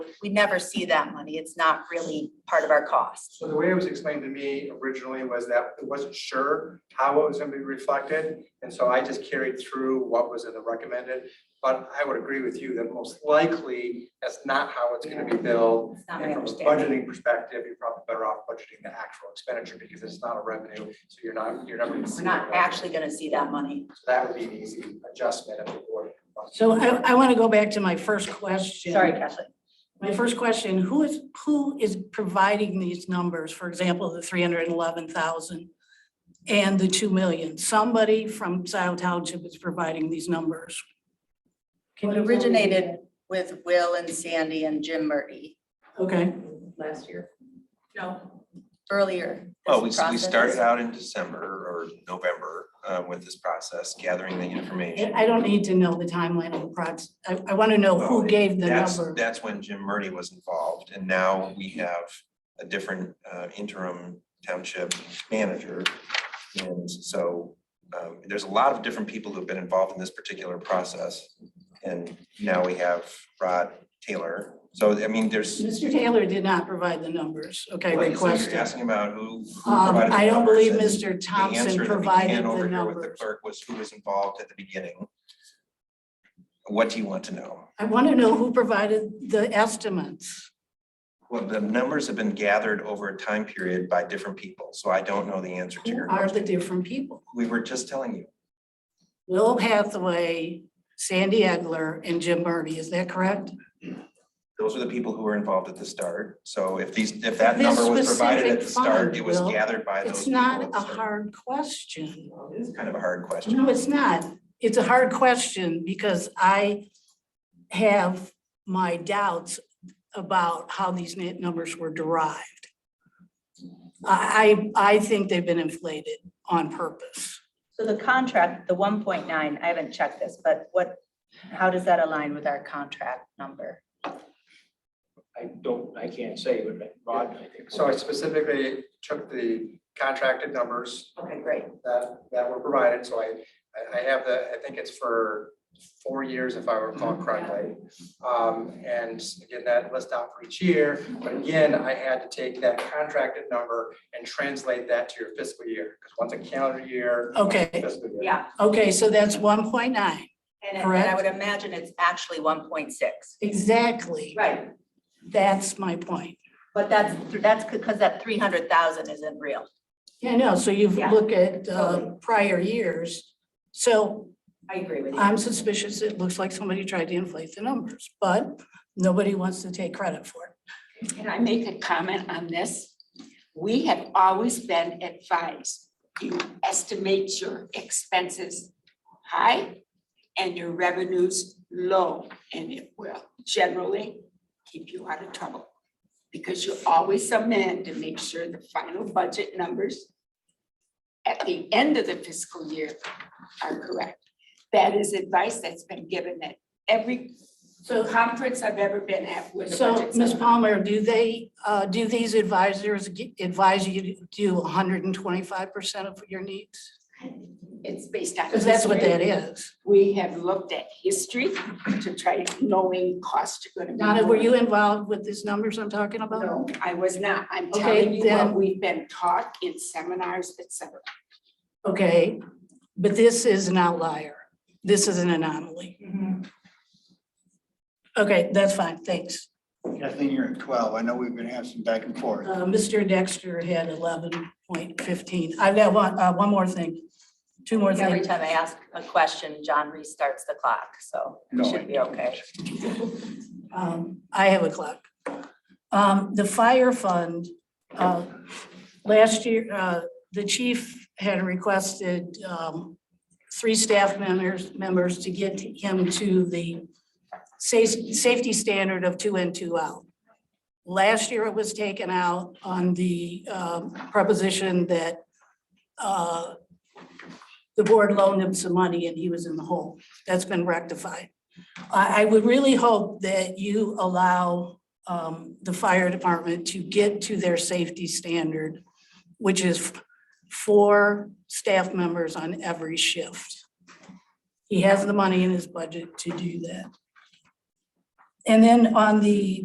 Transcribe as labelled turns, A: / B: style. A: we never see that money. It's not really part of our cost.
B: So the way it was explained to me originally was that it wasn't sure how it was gonna be reflected, and so I just carried through what was in the recommended. But I would agree with you that most likely, that's not how it's gonna be billed.
A: It's not my
B: And from a
A: understanding.
B: budgeting perspective, you're probably better off budgeting the actual expenditure because it's not a revenue, so you're not, you're never. gonna see
A: We're
B: the
A: not
B: revenue.
A: actually gonna see that money.
B: So That would be an easy adjustment if the board.
C: So I, I want to go back to my first question.
A: Sorry, Kathleen.
C: My first question, who is, who is providing these numbers? For example, the three hundred and eleven thousand and the two million? Somebody from Scioto Township is providing these numbers.
A: It originated with Will and Sandy and Jim Murdy
C: Okay,
D: last year. No.
A: earlier.
E: Well, Oh, we,
A: this
E: we started
A: process.
E: out in December or November uh, with this process, gathering the
C: I
E: information.
C: I don't need to know the timeline of the project. I, I want to know who gave the
E: That's,
C: number.
E: that's when Jim Murdy was involved, and now we have a different uh, interim township manager. And so um, there's a lot of different people who've been involved in this particular process. And now we have Rod Taylor. So, I mean, there's,
C: Mr. Taylor did not provide the numbers, okay,
E: like, so you're
C: requested.
E: asking about who. who
C: Um,
E: provided the
C: I don't
E: numbers
C: believe
E: and-
C: Mr.
E: The answer
C: Thompson
E: that we
C: provided
E: had
C: the
E: over here with the
C: numbers.
E: clerk was who was involved at the beginning. What do you want to know?
C: I want to know who provided the estimates.
E: Well, the numbers have been gathered over a time period by different people, so I don't know the answer to
C: Who
E: your
C: are the
E: question.
C: different people?
E: We were just telling you,
C: Will Hathaway, Sandy Egler, and Jim Murdy, is that correct?
E: those are the people who were involved at the start. So if these, if that
C: This
E: number was provided at the
C: specific
E: start,
C: fund,
E: it was
C: Will,
E: gathered by those
C: It's
E: people.
C: not
E: at the
C: a
E: start.
C: hard question.
E: It is kind of a hard question.
C: No, it's not. It's a hard question because I have my doubts about how these net numbers were derived. I, I I think they've been inflated on purpose.
F: So the contract, the one point nine, I haven't checked this, but what, how does that align with our contract number?
G: I don't, I can't say, but Rod, I think.
B: So I specifically took the contracted numbers
F: Okay, great.
B: that, that were provided, so I, I- I have the, I think it's for four years if I recall correctly. Um, and again, that list out for each year, but again, I had to take that contracted number and translate that to your fiscal year, because once a calendar year,
C: Okay,
B: fiscal year.
A: Yeah,
C: okay, so that's one point nine,
A: and and I
C: Correct.
A: would imagine it's actually one point six.
C: exactly.
F: Right,
C: That's my point.
A: But that's, that's because that three hundred thousand isn't real.
C: Yeah, no, so you've
A: Yeah,
C: looked at uh,
A: totally.
C: prior years. So
A: I agree with
C: I'm suspicious. It looks like somebody tried to inflate the numbers, but nobody wants to take credit for it.
H: Can I make a comment on this? We have always been advised, you estimate your expenses high and your revenues low, and it will generally keep you out of trouble. Because you always amend to make sure the final budget numbers at the end of the fiscal year are correct. That is advice that's been given at every conference I've ever been at with a
C: So,
H: budget.
C: Ms. Palmer, do they, uh, do these advisors gi- advise you to do hundred and twenty-five percent of your needs?
H: It's based on.
C: Because that's what
H: history.
C: that is.
H: We have looked at history to try knowing cost you're gonna be.
C: Donna, were you involved with these numbers I'm talking about?
H: No, I was not. I'm
C: Okay,
H: telling you
C: then-
H: what we've been taught in seminars, et cetera.
C: Okay, but this is an outlier. This is an anomaly. Okay, that's fine, thanks.
I: Kathleen, you're at twelve. I know we've been having some back and forth.
C: Uh, Mr. Dexter had eleven point fifteen. I've got one, uh, one more thing, two more
A: Every
C: things.
A: time I ask a question, John restarts the clock, so
I: No,
A: it
I: I
A: should be okay.
C: Um, I have a clock. Um, the fire fund, uh, last year, uh, the chief had requested, um, three staff members, members to get him to the sa- safety standard of two in, two out. Last year, it was taken out on the, um, proposition that, uh, the board loaned him some money and he was in the hole. That's been rectified. I, I would really hope that you allow um, the fire department to get to their safety standard, which is four staff members on every shift. He has the money in his budget to do that. And then on the